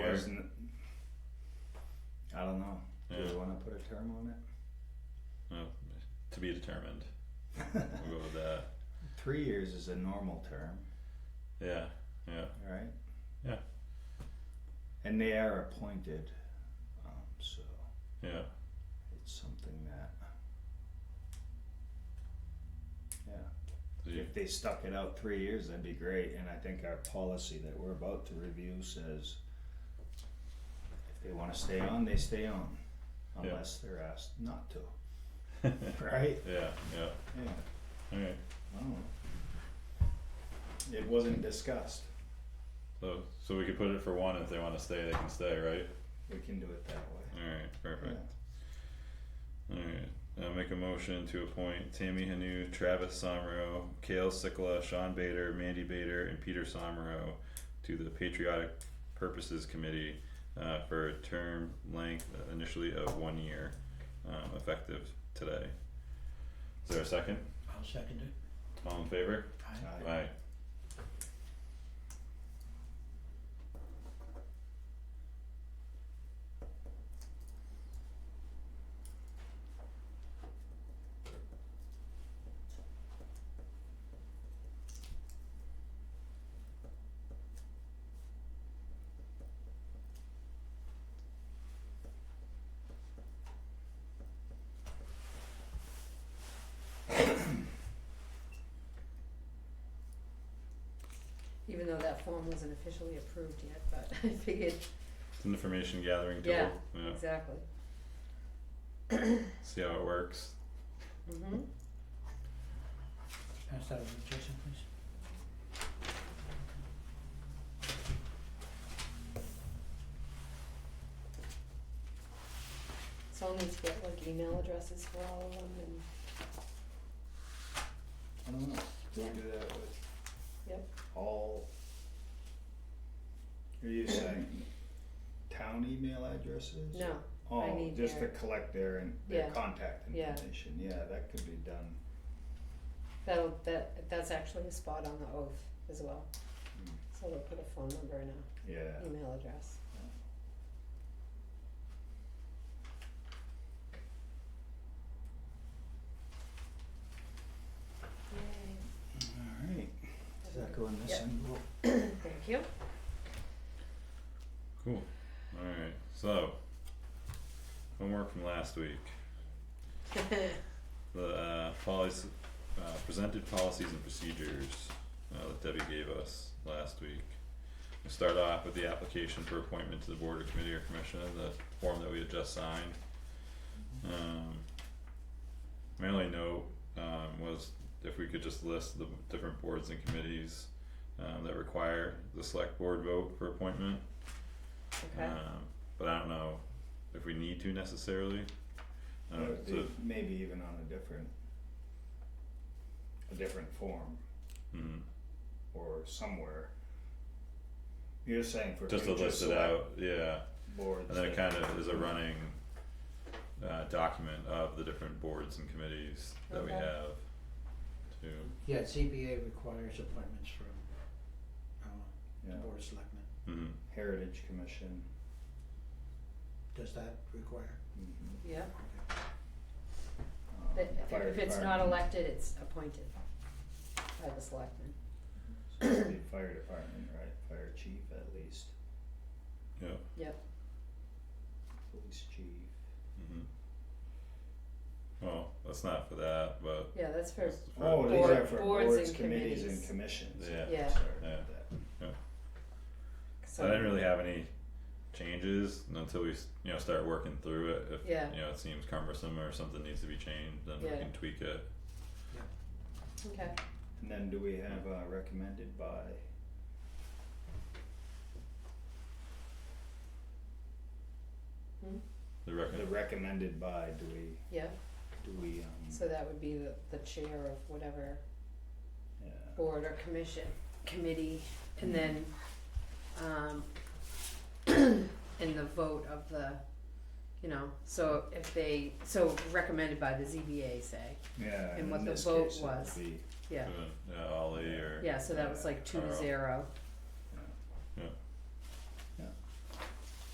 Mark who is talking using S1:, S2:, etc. S1: person. I don't know. Do
S2: Yeah.
S1: we want to put a term on it?
S2: Well, to be determined. We'll go with that.
S1: Three years is a normal term,
S2: Yeah. Yeah.
S1: right?
S2: Yeah.
S1: And they are appointed, um, so
S2: Yeah.
S1: it's something that. Yeah.
S2: Did you-
S1: If they stuck it out three years, that'd be great, and I think our policy that we're about to review says if they wanna stay on, they stay on,
S2: Yeah.
S1: unless they're asked not to. Right?
S2: Yeah. Yeah.
S1: Yeah,
S2: All right.
S1: I don't know. It wasn't discussed,
S2: So so we could put it for one. If they want to stay, they can stay, right?
S1: we can do it that way.
S2: All right. Perfect.
S1: Yeah.
S2: Alright, I'll make a motion to appoint Tammy Hanu, Travis Somro, Kale Sikla, Sean Bader, Mandy Bader, and Peter Somro to the Patriotic Purposes Committee uh for a term length initially of one year, um effective today. Is there a second?
S3: I'll second it.
S2: All in favor?
S3: Aye.
S1: Aye.
S2: Aye.
S4: Even though that form wasn't officially approved yet, but I figured,
S2: It's an information gathering tool,
S4: Yeah.
S2: yeah,
S4: exactly.
S2: see how it works.
S4: Mm-hmm.
S3: Pass that over to Jason, please.
S4: So I'll need to get like email addresses for all of them and,
S1: I don't know, do we
S4: Yeah.
S1: do that with?
S4: Yep.
S1: All. Are you saying town email addresses?
S4: no, I
S1: Oh,
S4: need
S1: just to
S4: their-
S1: collect their and their
S4: Yeah.
S1: contact
S4: Yeah.
S1: information, yeah, that could be done.
S4: that'll, that, that's actually a spot on the oath as well.
S1: Mm.
S4: So they'll put a phone number and a
S1: Yeah,
S4: email address. Yay.
S1: alright, does that go in this
S4: Yep.
S1: envelope?
S4: Thank you.
S2: Cool. Alright, so homework from last week. the uh policy, uh presented policies and procedures uh that Debbie gave us last week. We start off with the application for appointment to the board or committee or commission, the form that we had just signed. Um my only note um was if we could just list the different boards and committees um that require the select board vote for appointment.
S4: Okay,
S2: Um but I don't know if we need to necessarily. Um,
S1: Or it'd
S2: so-
S1: be Maybe even on a different, a different form
S2: mhm.
S1: or somewhere. You're saying for.
S2: just to
S1: future
S2: list it
S1: select
S2: out, yeah,
S1: Boards.
S2: and then it
S1: that-
S2: kind of is a running uh document of the different boards and committees that we
S4: Okay.
S2: have to,
S3: Yeah, ZBA requires appointments from, uh, the
S1: Yeah,
S3: board of selectmen.
S2: mhm,
S1: Heritage Commission.
S3: Does that require?
S1: mhm,
S4: yeah,
S3: Okay.
S1: um,
S4: That-
S1: fire
S4: if it's not
S1: department,
S4: elected, it's appointed by the selectmen.
S1: so it'd be Fire department, right, fire chief at least,
S2: yeah,
S1: police chief.
S2: mhm. Well, that's not for that, but
S4: Yeah, that's for,
S2: it's for-
S1: Oh, these
S4: Board-
S1: are for
S4: boards
S1: boards,
S4: and
S1: committees and
S4: committees.
S1: commissions.
S2: Yeah.
S4: Yeah.
S1: Sorry about
S2: Yeah.
S1: that.
S2: I didn't really have any changes until we, s- you know, start working through it, if,
S4: Yeah.
S2: you know, it seems cumbersome or something needs to be changed, then we
S4: Yeah.
S2: can tweak it,
S4: Okay,
S1: And then do we have uh recommended by?
S2: the record.
S1: The recommended by, do we,
S4: yeah,
S1: do we um,
S4: so that would be the, the chair of whatever
S1: yeah,
S4: board or commission, committee, and then, um, and the vote of the, you know, so if they, so recommended by the ZBA, say,
S1: yeah,
S4: and
S1: and
S4: what
S1: in
S4: the
S1: this
S4: vote
S1: case, it would
S4: was.
S1: be,
S4: yeah,
S2: uh, Ollie or.
S4: yeah, so that was like two to
S2: Carl.
S4: zero,